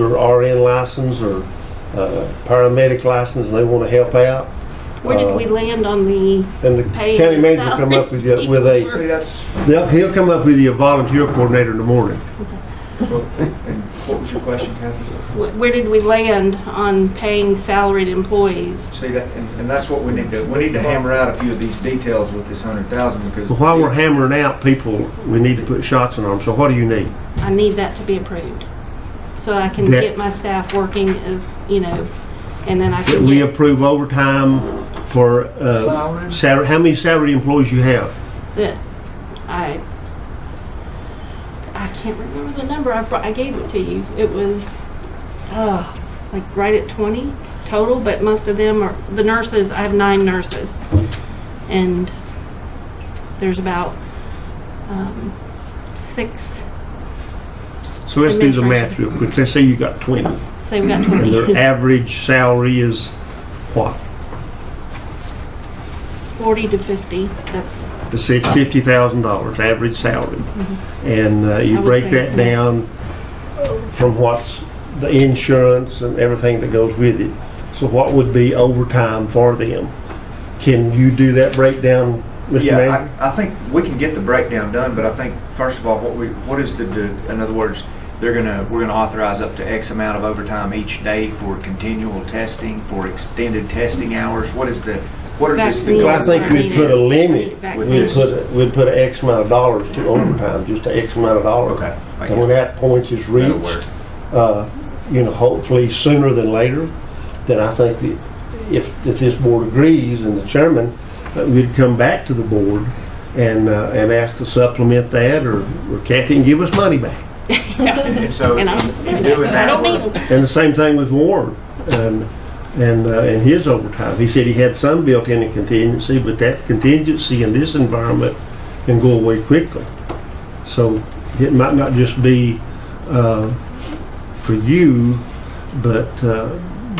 or RN license or uh, paramedic license, and they want to help out, Where Uh, did we land on the, then the Pay county and manager will come up with you, with a, See, that's, they'll- he'll come up with you a volunteer coordinator in the morning. what was your question, Kathy? wh- where did we land on paying salaried employees? See, that, and, and that's what we need to, we need to hammer out a few of these details with this hundred thousand because. But while we're hammering out people, we need to put shots on them, so what do you need? I need that to be approved, so I can That- get my staff working as, you know, and then I That can we get approve overtime for, uh, salary, how many salary employees you have? the, I, I can't remember the number, I, br- I gave it to you. It was, uh, like right at twenty total, but most of them are, the nurses, I have nine nurses. And there's about, um, six, So let's do the math Administration. real quick. Let's say you got twenty, say we got and their twenty, average salary is what? forty to fifty, that's, The six, fifty thousand dollars, average salary. And uh, I you would break that think, yeah. down uh, from what's the insurance and everything that goes with it. So what would be overtime for them? Can you do that breakdown, Mr. Yeah, Manager? I, I think we can get the breakdown done, but I think, first of all, what we, what is the, the- in other words, they're gonna, we're gonna authorize up to X amount of overtime each day for continual testing, for extended testing hours, what is the, what are this? the Vaccine. Well, I goals? think we'd put a limit, Back with we'd this. put, a- we'd put an X amount of dollars to overtime, just an X amount of dollars. Okay. I And when get it. that point is That'll reached, work. uh, you know, hopefully sooner than later, then I think that if, if this board agrees and the chairman, that we'd come back to the board and, uh, and ask to supplement that or or Kathy can give us money back. And and so, in and I'm, in doing I that, don't need we're- them. And the same thing with Warren and, and, uh, and his overtime. He said he had some built-in in contingency, but that contingency in this environment can go away quickly. So it might not just be, uh, for you, but, uh,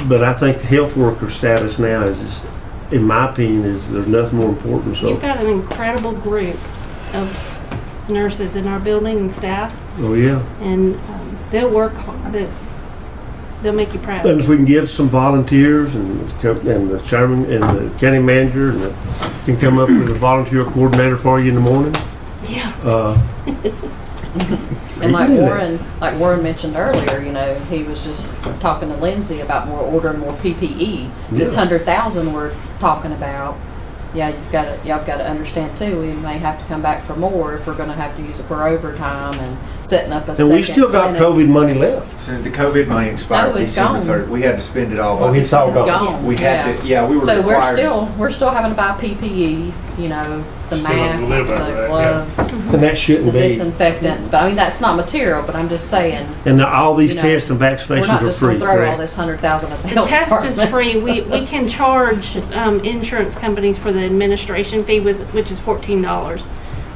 but I think the health worker status now is, is- in my opinion, is there's nothing more important, so. You've got an incredible group of nurses in our building and staff, Oh, yeah. and um, they'll work, hard. They- they'll make you And proud. if we can get some volunteers and, the co- and the chairman and the county manager and the, can come up with a volunteer coordinator for you in the morning, Yeah, uh, And You like can do that. Warren, like Warren mentioned earlier, you know, he was just talking to Lindsay about more ordering more PPE. This Yeah. hundred thousand we're talking about, yeah, you've got to, y'all got to understand too, we may have to come back for more if we're going to have to use it for overtime and setting up a second. and we still got clinic. COVID money left. so the COVID money expired No, it's December gone. third, we had to spend it all. Oh, by it's all It's gone. gone. We had yeah. to, yeah, we were So we're required. still, we're still having to buy PPE, you know, the Still having to masks, the live out of that, yeah. gloves, And that the shouldn't be. disinfectants, but I mean, that's not material, but I'm just saying, And the- all these You know, tests and we're vaccinations not are just going free, to throw all correct? this hundred thousand at the the health test department. is free. We, we can charge um, insurance companies for the administration fee, was- which is fourteen dollars.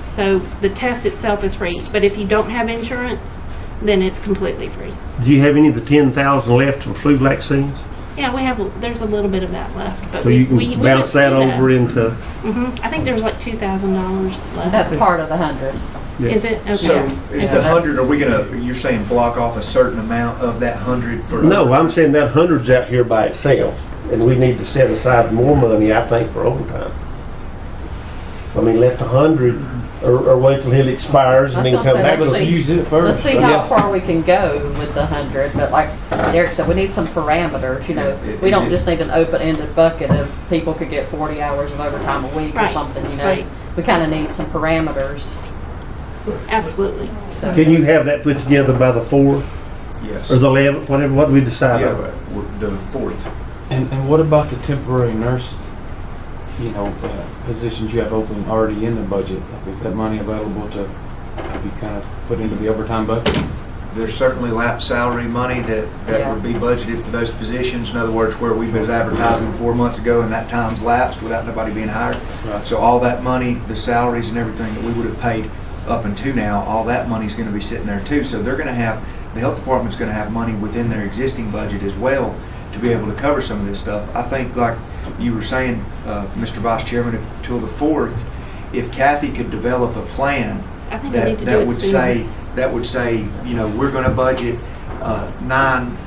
So the test itself is free, but if you don't have insurance, then it's completely free. Do you have any of the ten thousand left for flu vaccines? Yeah, we have, there's a little bit of that left, but So we, you we. can bounce that over into, hmm I think there's like two thousand dollars left. That's part of the hundred. Is it? Okay. So is Yeah, the that's- hundred, are we gonna, you're saying block off a certain amount of that hundred for? no, I'm saying that hundred's out here by itself, and we need to set aside more money, I think, for overtime. I mean, let the hundred, or, or wait till it expires and I then was come gonna back say, with let's a see- Use it Let's first. see Yeah. how far we can go with the hundred, but like Derek said, we need some parameters, you know. Yeah, it- We is don't it- just need an open-ended bucket of people could get forty hours of overtime a week or Right, something, you right. know. We kinda need some parameters, Absolutely. so. Can you have that put together by the fourth Yes. or the eleventh, whatever, what we decide Yeah, on? but we're- the fourth. And, and what about the temporary nurse, you know, uh, positions you have open already in the budget? Like, Is that money available to be kind of put into the overtime bucket? There's certainly lap salary money that, that Yeah. would be budgeted for those positions. In other words, where we was advertising four months ago and that time's lapsed without nobody being hired. Right. So all that money, the salaries and everything that we would have paid up until now, all that money's gonna be sitting there too. So they're gonna have, the health department's gonna have money within their existing budget as well to be able to cover some of this stuff. I think like you were saying, uh, Mr. Vice Chairman, if- till the fourth, if Kathy could develop a plan I think we need that, to do that it would sooner. say, that would say, you know, we're gonna budget uh, nine